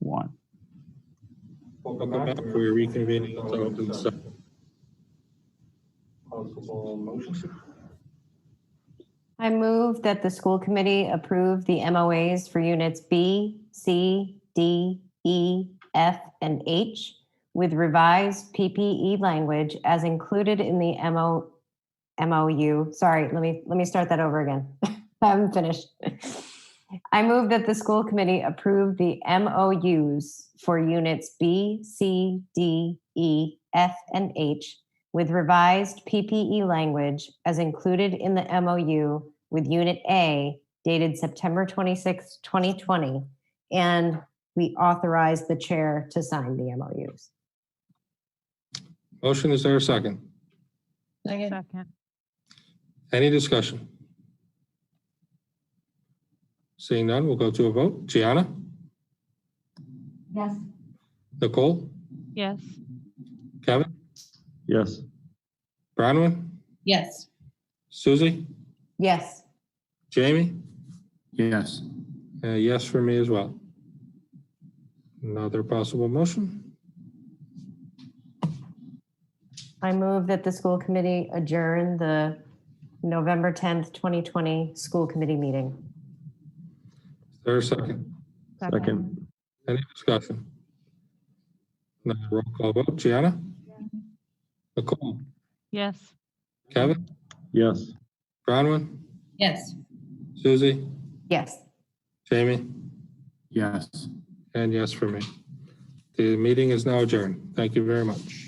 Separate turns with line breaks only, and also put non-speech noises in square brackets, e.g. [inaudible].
one.
Welcome back. We're reconvening into open session. Possible motions?
I move that the school committee approve the MOAs for units B, C, D, E, F, and H with revised PPE language as included in the MO, MOU. Sorry, let me, let me start that over again. [laughs] I haven't finished. I move that the school committee approve the MOUs for units B, C, D, E, F, and H with revised PPE language as included in the MOU with Unit A dated September 26, 2020, and we authorize the chair to sign the MOUs.
Motion, is there a second?
Second.
Any discussion? Seeing none, we'll go to a vote. Gianna?
Yes.
Nicole?
Yes.
Kevin?
Yes.
Bronwyn?
Yes.
Susie?
Yes.
Jamie?
Yes.
Uh, yes for me as well. Another possible motion?
I move that the school committee adjourn the November 10th, 2020 school committee meeting.
Is there a second?
Second.
Any discussion? Another roll call vote. Gianna? Nicole?
Yes.
Kevin?
Yes.
Bronwyn?
Yes.
Susie?
Yes.
Jamie?
Yes.
And yes for me. The meeting is now adjourned. Thank you very much.